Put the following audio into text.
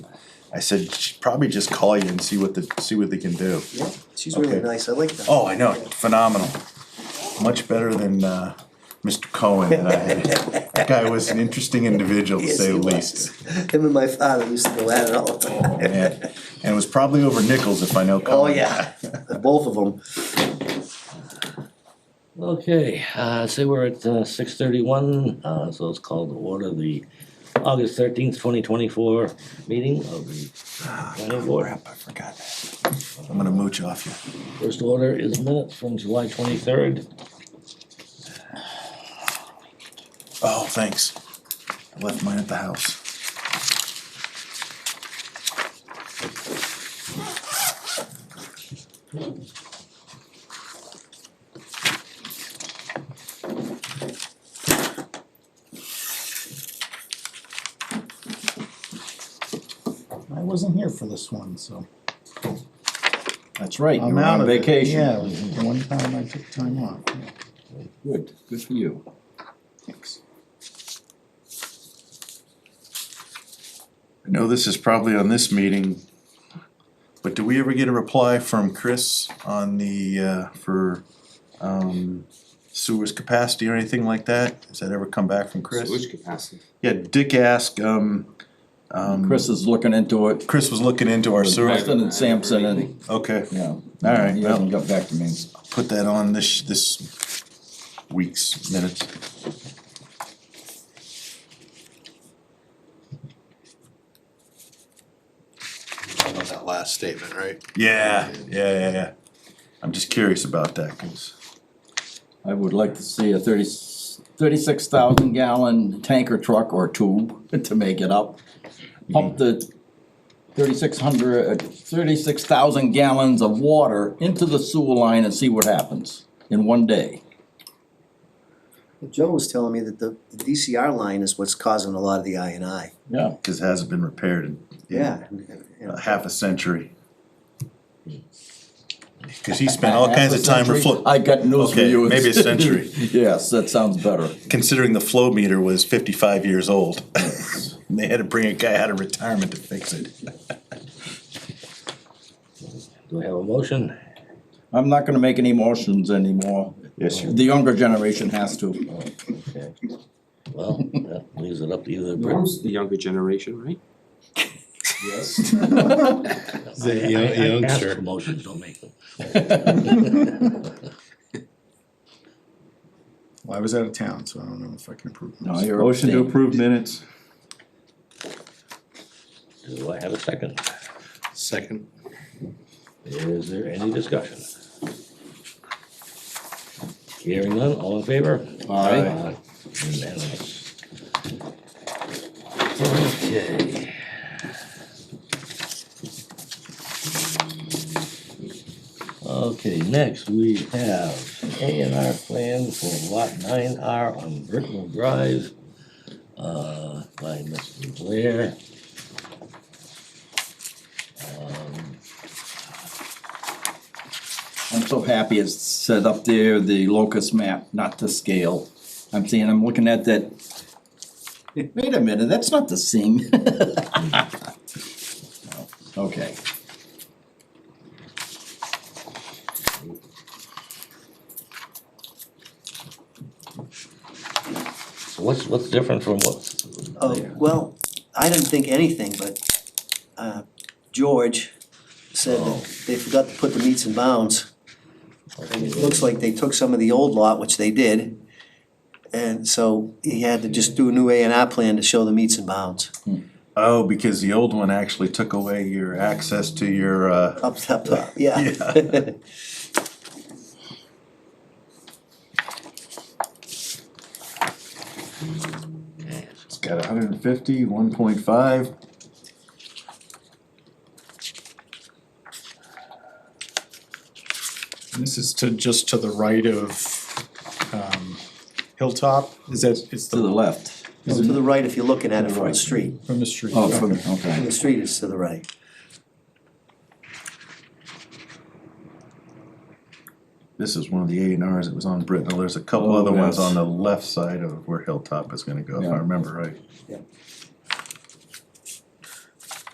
I said, "Sh- probably just call you and see what the, see what they can do. Yeah, she's really Okay. nice, I like that. Oh, I know, phenomenal. Much better than, uh, Mr. Cohen that I had. That guy was an interesting individual, to Yes, say the he was. least. Him and my father used to go at it all the time. And and it was probably over nickels if I know Cohen. Oh, yeah, both of them. Okay, uh, say we're at six thirty-one, uh, so it's called to order the August thirteenth, twenty twenty-four meeting of the planning board. Crap, I forgot that. I'm gonna mooch off you. First order is minutes from July twenty-third. Oh, thanks. I left mine at the house. I wasn't here for this one, so. That's right, I'm out of it. vacation. Yeah, it was the one time I took time off. yeah. Good, good for you. Thanks. I know this is probably on this meeting, but do we ever get a reply from Chris on the, uh, for, um, sewers capacity or anything like that? Has that ever come back from Chris? Which capacity? Yeah, Dick asked, um, um, Chris is looking into it, Chris was looking into our sewer, Preston and Sampson and, okay, yeah. All right, He well- hasn't got back to me. put that on this, this week's minutes. about that last statement, right? Yeah, yeah, yeah, yeah. I'm just curious about that, cause I would like to see a thirty, thirty-six thousand gallon tanker truck or tube to make it up. Pump the thirty-six hundred, uh, thirty-six thousand gallons of water into the sewer line and see what happens in one day. Joe was telling me that the the DCR line is what's causing a lot of the I and I. Yeah, cause it hasn't been repaired in. Yeah. a half a century. Cause he spent all kinds of time reflo- I got news for Okay, you. maybe a century. Yes, that sounds better. considering the flow meter was fifty-five years old. And they had to bring a guy out of retirement to fix it. Do we have a motion? I'm not gonna make any motions anymore. Yes, you- The younger generation has to. Okay. Well, that leaves it up to either Brits. Norm's the younger generation, right? Yes. The young- youngster. Motions don't make them. Well, I was out of town, so I don't know if I can approve. No, this. you're. Motion to abstaining. approve minutes. Do I have a second? Second. Is there any discussion? Hearing none, all in favor? Aye. Unanimous. Okay. Okay, next we have A and R plan for lot nine R on Brittenell Drive, uh, by Mr. Blair. Um, I'm so happy it's set up there, the locust map, not to scale. I'm seeing, I'm looking at that. Wait a minute, that's not the same. Okay, What's, what's different from what? Oh, well, I didn't think anything, but, uh, George said Oh. that they forgot to put the meets and bounds. And it looks like they took some of the old lot, which they did. And so he had to just do a new A and R plan to show the meets and bounds. Oh, because the old one actually took away your access to your, uh, Up, up, up, yeah. Yeah. it's got hundred and fifty, one point five. This is to, just to the right of, um, Hilltop, is that, it's to the the, left. is To it the right if you're looking at it from the Right. street. from the street? Oh, from, Okay. okay. The street is to the right. This is one of the A and Rs that was on Brittenell, there's a couple Oh, other ones yes. on the left side of where Hilltop is gonna go, if I Yeah. remember right.